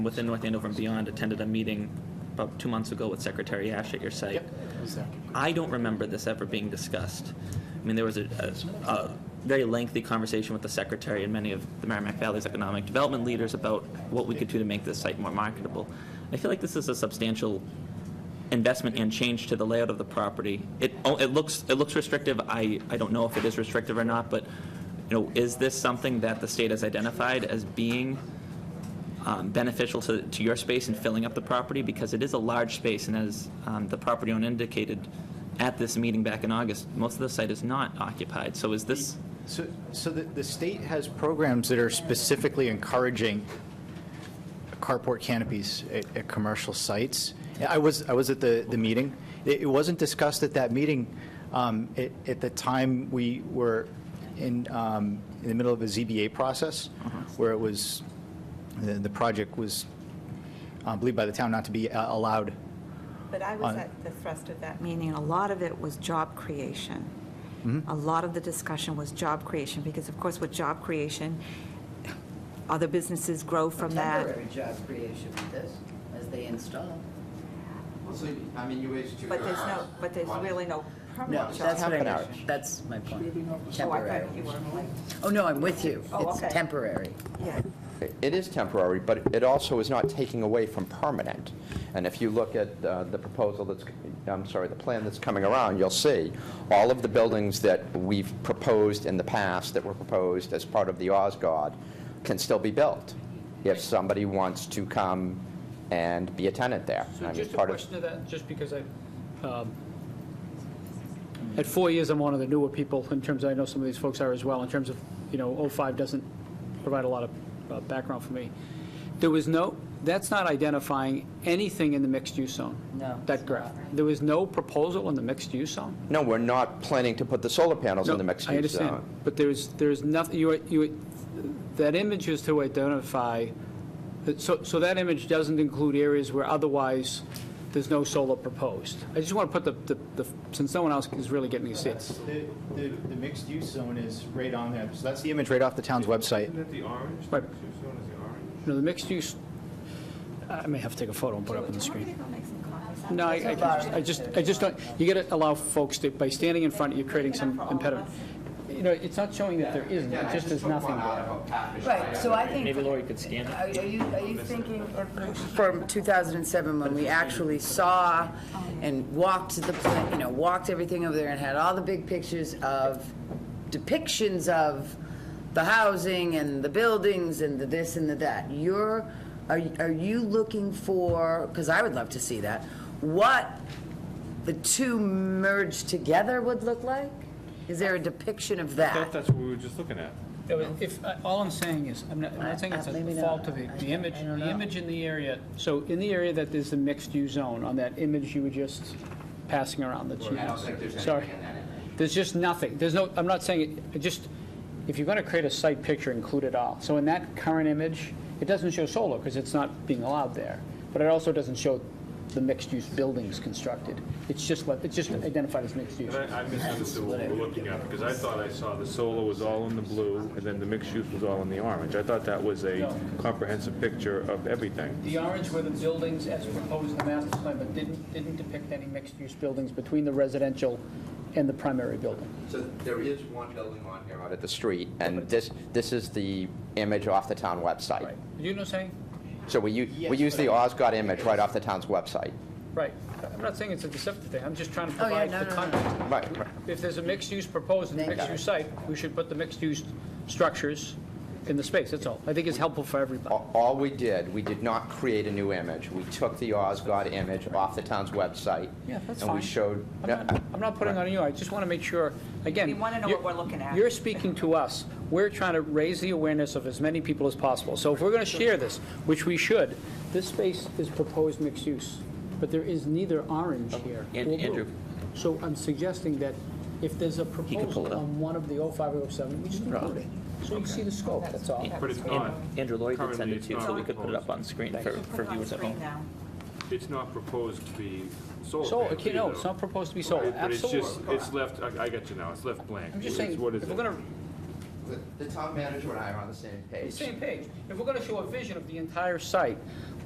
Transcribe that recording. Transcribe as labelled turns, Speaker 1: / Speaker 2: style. Speaker 1: within North Andover and beyond attended a meeting about two months ago with Secretary Ash at your site.
Speaker 2: Yep, it was there.
Speaker 1: I don't remember this ever being discussed. I mean, there was a, a, a very lengthy conversation with the secretary and many of the Merrimack Valley's economic development leaders about what we could do to make this site more marketable. I feel like this is a substantial investment and change to the layout of the property. It, oh, it looks, it looks restrictive. I, I don't know if it is restrictive or not, but, you know, is this something that the state has identified as being um, beneficial to, to your space and filling up the property because it is a large space and as um, the property owner indicated at this meeting back in August, most of the site is not occupied. So is this,
Speaker 2: So, so the, the state has programs that are specifically encouraging carport canopies at, at commercial sites. I was, I was at the, the meeting. It, it wasn't discussed at that meeting. Um, at, at the time, we were in, um, in the middle of a ZBA process where it was, the, the project was uh, believed by the town not to be uh, allowed.
Speaker 3: But I was at the thrust of that meeting, and a lot of it was job creation. A lot of the discussion was job creation, because of course with job creation, other businesses grow from that.
Speaker 4: Temporary job creation with this, as they install.
Speaker 5: Well, so, I mean, you waste two.
Speaker 3: But there's no, but there's really no permanent job
Speaker 4: That's what
Speaker 3: creation.
Speaker 4: I, that's my point.
Speaker 3: Oh, I
Speaker 4: Temporary.
Speaker 3: thought you were, like,
Speaker 4: Oh, no, I'm with you.
Speaker 3: Oh,
Speaker 4: It's
Speaker 3: okay.
Speaker 4: temporary.
Speaker 3: yeah.
Speaker 5: It is temporary, but it also is not taking away from permanent. And if you look at uh, the proposal that's, I'm sorry, the plan that's coming around, you'll see all of the buildings that we've proposed in the past, that were proposed as part of the Osgood, can still be built if somebody wants to come and be a tenant there. I
Speaker 6: So
Speaker 5: mean,
Speaker 6: just a
Speaker 5: part of-
Speaker 6: question of that, just because I, um, at four years, I'm one of the newer people in terms, I know some of these folks are as well, in terms of, you know, '05 doesn't provide a lot of uh, background for me. There was no, that's not identifying anything in the mixed-use zone.
Speaker 4: No,
Speaker 6: That
Speaker 4: it's
Speaker 6: graph. There was no proposal in the mixed-use zone?
Speaker 5: No, we're not planning to put the solar panels in the
Speaker 6: No, I
Speaker 5: mixed-use
Speaker 6: understand,
Speaker 5: zone.
Speaker 6: but there's, there's nothing, you, you, that image is to identify, so, so that image doesn't include areas where otherwise there's no solar proposed. I just want to put the- the, the, since no one else is really getting to see it.
Speaker 2: The, the, the mixed-use zone is right on there. So that's the image right off the town's website.
Speaker 7: Isn't it the orange?
Speaker 6: Right.
Speaker 7: The mixed-use zone is the orange?
Speaker 6: You know, the mixed use, I may have to take a photo and put it up on the
Speaker 3: Do you want me
Speaker 6: screen.
Speaker 3: to go make some coffee?
Speaker 6: No, I, I can just- I just, I just don't, you got to allow folks to, by standing in front, you're creating some impediment. You know, it's not showing that there isn't, it just is nothing there.
Speaker 4: Right, so I think,
Speaker 1: maybe Lori could scan it?
Speaker 4: are are you, are you thinking of- from 2007, when we actually saw and walked the, pla- you know, walked everything over there and had all the big pictures of depictions of the housing and the buildings and the this and the that? You're, are you- are you looking for, because I would love to see that, what the two merged together would look like? Is there a depiction of
Speaker 7: I thought
Speaker 4: that?
Speaker 7: that's what we were just looking at.
Speaker 6: Yeah, but If, I- all I'm saying is, I'm not, I'm
Speaker 4: I-
Speaker 6: not saying it's
Speaker 4: I-
Speaker 6: a
Speaker 4: maybe
Speaker 6: fault
Speaker 4: not.
Speaker 6: of the,
Speaker 4: I-
Speaker 6: the image,
Speaker 4: I don't
Speaker 6: the
Speaker 4: know.
Speaker 6: image in the area, so in the area that there's the mixed-use zone, on that image you were just passing around that you. Sorry. There's just nothing, there's no, I'm not saying, it- it just, if you're gonna create a site picture, include it all. So in that current image, it doesn't show solar, because it's not being allowed there, but it also doesn't show the mixed-use buildings constructed. It's just, what- it's just identified as mixed-use.
Speaker 7: And I I misunderstood what we were looking at, because I thought I saw the solar was all in the blue, and then the mixed-use was all in the orange. I thought that was a
Speaker 6: No.
Speaker 7: comprehensive picture of everything.
Speaker 6: The orange were the buildings as proposed in the master plan, but didn't, didn't depict any mixed-use buildings between the residential and the primary building.
Speaker 5: So there is one building on here out at the street, and this, this is the image off the town website.
Speaker 6: You know what I'm saying?
Speaker 5: So we use, we use the Osgood image right off the town's website.
Speaker 6: Right. I'm not saying it's a deceptive thing, I'm just trying to
Speaker 4: Oh, yeah,
Speaker 6: provide
Speaker 4: no,
Speaker 6: the
Speaker 4: no, no, no.
Speaker 6: context.
Speaker 5: Right, right.
Speaker 6: If there's a mixed-use proposed in the
Speaker 4: Thank you.
Speaker 6: mixed-use site, we should put the mixed-use structures in the space, that's all. I think it's helpful for everybody.
Speaker 5: A- All we did, we did not create a new image. We took the Osgood image off the town's website.
Speaker 6: Yeah, that's
Speaker 5: And
Speaker 6: fine.
Speaker 5: we showed.
Speaker 6: I'm not, I'm not putting on you, I just want to make sure, again.
Speaker 3: We wanna know what
Speaker 6: you're-
Speaker 3: we're looking at.
Speaker 6: You're speaking to us. We're trying to raise the awareness of as many people as possible. So if we're going to share this, which we should, this space is proposed mixed use, but there is neither orange here or
Speaker 1: And- Andrew.
Speaker 6: blue. So I'm suggesting that if there's a
Speaker 1: pull it
Speaker 6: proposal
Speaker 1: up.
Speaker 6: on one of the 05 or 07, we just include it. So you see the scope, that's all.
Speaker 7: But it's not,
Speaker 1: Andrew, Lori did send
Speaker 7: Currently,
Speaker 1: it
Speaker 7: it's
Speaker 1: to you, so
Speaker 7: not
Speaker 1: we could put it up on screen for,
Speaker 3: We'll put
Speaker 1: for
Speaker 3: it on
Speaker 1: viewers at
Speaker 3: screen
Speaker 1: home.
Speaker 3: now.
Speaker 7: it's not proposed to be solar.
Speaker 6: So,
Speaker 7: panels
Speaker 6: okay, no,
Speaker 7: either.
Speaker 6: it's not proposed to be sold,
Speaker 7: But it's
Speaker 6: absolutely.
Speaker 7: just, it's left, I I got you now, it's left blank.
Speaker 6: I'm just
Speaker 7: It's
Speaker 6: saying,
Speaker 7: what is
Speaker 6: if we're
Speaker 7: it?
Speaker 6: going to
Speaker 5: the town manager and I are on the same page.
Speaker 6: Same page. If we're gonna show a vision of the entire site,